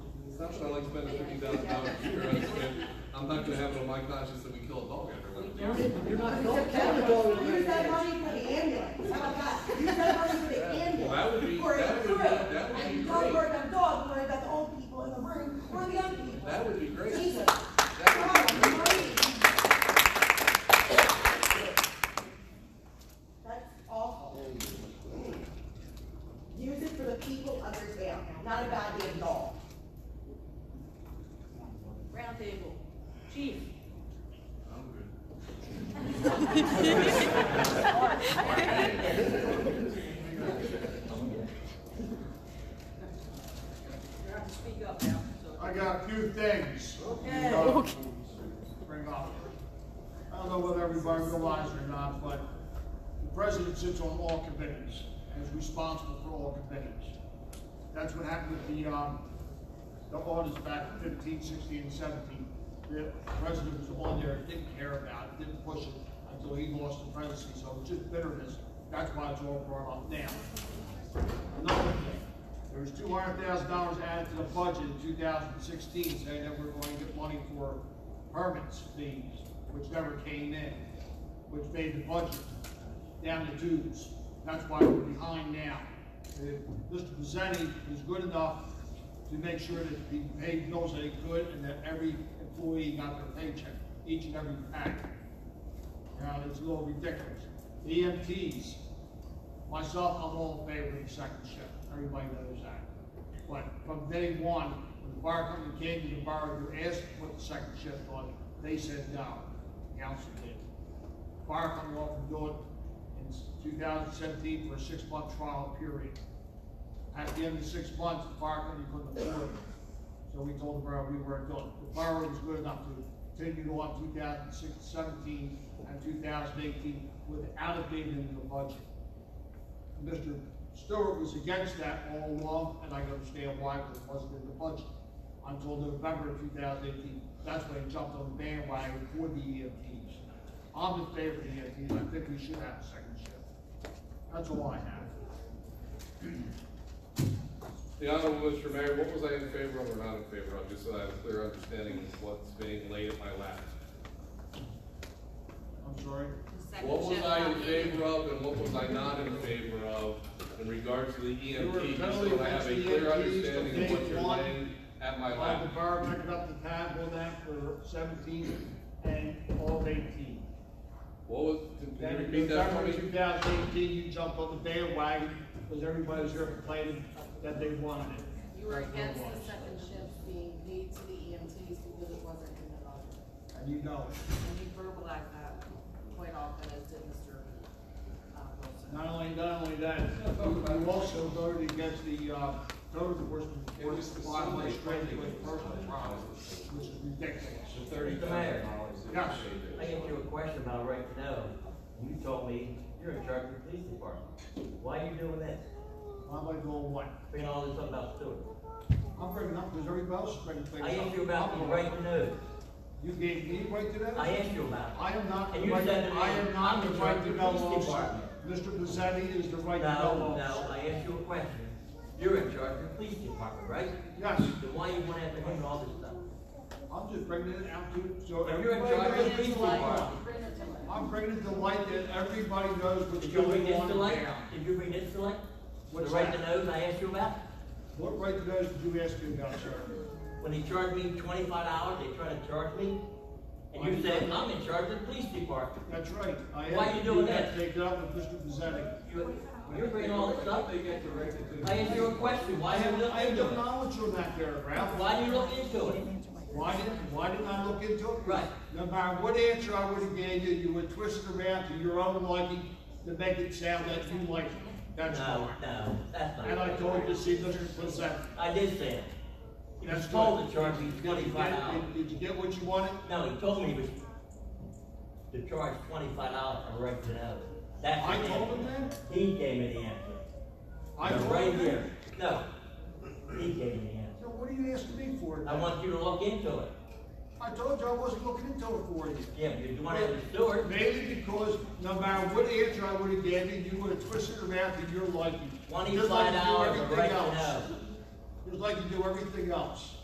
not that I like spending fifty thousand dollars a year, I spend, I'm not gonna have it on my conscience that we kill a dog after one. You're not, Use don't count the dog in your that hand. money for the ambulance, how about that? Use that money for the Well, that would be- ambulance, for a that would be- crew. that would be And you don't great. worry about dogs, worry about the old people in the room, or the young people. That would be great. Jesus. Come That would be on, great. money. That's awful. Use it for the people of your town, not about the dog. Roundtable. Chief? I'm good. You're gonna have to speak up now, so. I got a few things. Okay. to Bring up. I don't know whether everybody realizes or not, but the president sits on all committees and is responsible for all committees. That's what happened with the, um, the audits back in 15, 16, and seventeen. The president was on there, didn't care about it, didn't push it until he lost the presidency, so it's just bitterness. That's why it's all brought up now. Another thing, there was two hundred thousand dollars added to the budget in two thousand sixteen, saying that we're going to get money for permits fees, which never came in, which made the budget down the tubes. That's why we're behind now. If Mr. Pizzetti was good enough to make sure that he paid bills that he could and that every employee got their paycheck, each and every pack. Now, it's a little ridiculous. The EMTs, Myself, I'm all in favor of the second shift, everybody knows that. But from day one, when the fire company came to the borough, you asked what the second shift was, they said no, The council did. Fire company offered to do it in two thousand seventeen for a six-month trial period. At the end of six months, the fire company couldn't afford it, so we told the borough we weren't doing it. The borough was good enough to continue on 2016, 17, and two thousand eighteen without it being in the budget. Mr. Stewart was against that all along, and I can understand why, because it wasn't in the budget. Until November of two thousand eighteen, that's when he jumped on the bandwagon for the EMTs. I'm in favor of the EMTs, I think we should have a second shift. That's all I have. The Honorable Mr. Mayor, what was I in favor of or not in favor of, just so I have a clear understanding of what's being laid at my lap? I'm sorry? What was I in favor of and what was I not in favor of in regards to the were E EMT? Just totally so I have a against the clear EMTs understanding of from what day you're one. laying at my I have the lap. borough picking up the tab on that for seventeen and all of eighteen. What was, can Then you in repeat that for November two me? thousand eighteen, you jumped on the bandwagon, because everybody was here complaining that they wanted it. You were That's what it against the was. second shift being paid to the EMTs because it wasn't in the budget. And you know it. And you verbalized that quite often, as did Mr. uh, Wilson. Not only, not only that, you you also voted against the, uh, code enforcement, It was the bottom line Sunday straight funding. away personal problems, which is ridiculous. Mr. Mayor, Yes. I get you a question about right now. You told me you're in charge of the police department. Why are you doing this? I'm like, well, what? Bringing all this up about Stewart. I'm bringing up, because everybody else is bringing things up. I asked you about the I'm- right to know. You gave me right to that? I asked you about I am not, And the you right- said to me, I am not I'm the the right to director know of the police officer. Mr. Pizzetti is the it. right to No, know no, officer. I asked you a question. You're in charge of the police department, right? Yes, Then why you want to have to handle all this stuff? I'm just bringing it out to, so If you're in everybody charge of the knows police what's going on. department, Bring it to life. I'm bringing it to light that everybody knows what's did you bring going this on to in light? town. Did you bring this to light? The What's right that? to knows I asked you about? What right to those did you ask me about, sir? When they charged me twenty-five dollars, they tried to charge me? And you said, I'm in charge of the police department. That's right. I Why asked you doing that that? Take it up with Mr. Pizzetti. You- You're bringing all this up. They get directed to. I asked you a question, I why didn't have, you look I have no into it? knowledge on that paragraph. Why didn't you look into it? Why didn't, why didn't I look into it? Right. No matter what answer I would have gave you, you would twist it around to your own liking to make it sound that you like it. That's No, why. no, that's And I not. told you, see, Mr. Pizzetti. I did say it. He was That's told good. to charge me Did you get- twenty-five dollars. Did did you get what you wanted? No, he told me he was to charge twenty-five dollars for right to know. That's. I the told answer. him that? He gave me the answer. I No, told him Right that? here, no. He gave me the So what are you asking me for? answer. I want you to look into it. I told you I wasn't looking into it for you. Yeah, but you want to have a steward. Mainly because no matter what answer I would have given you, you would have twisted it around to your liking. Just like Twenty-five you do dollars, everything right to else. know. Just like you do everything else.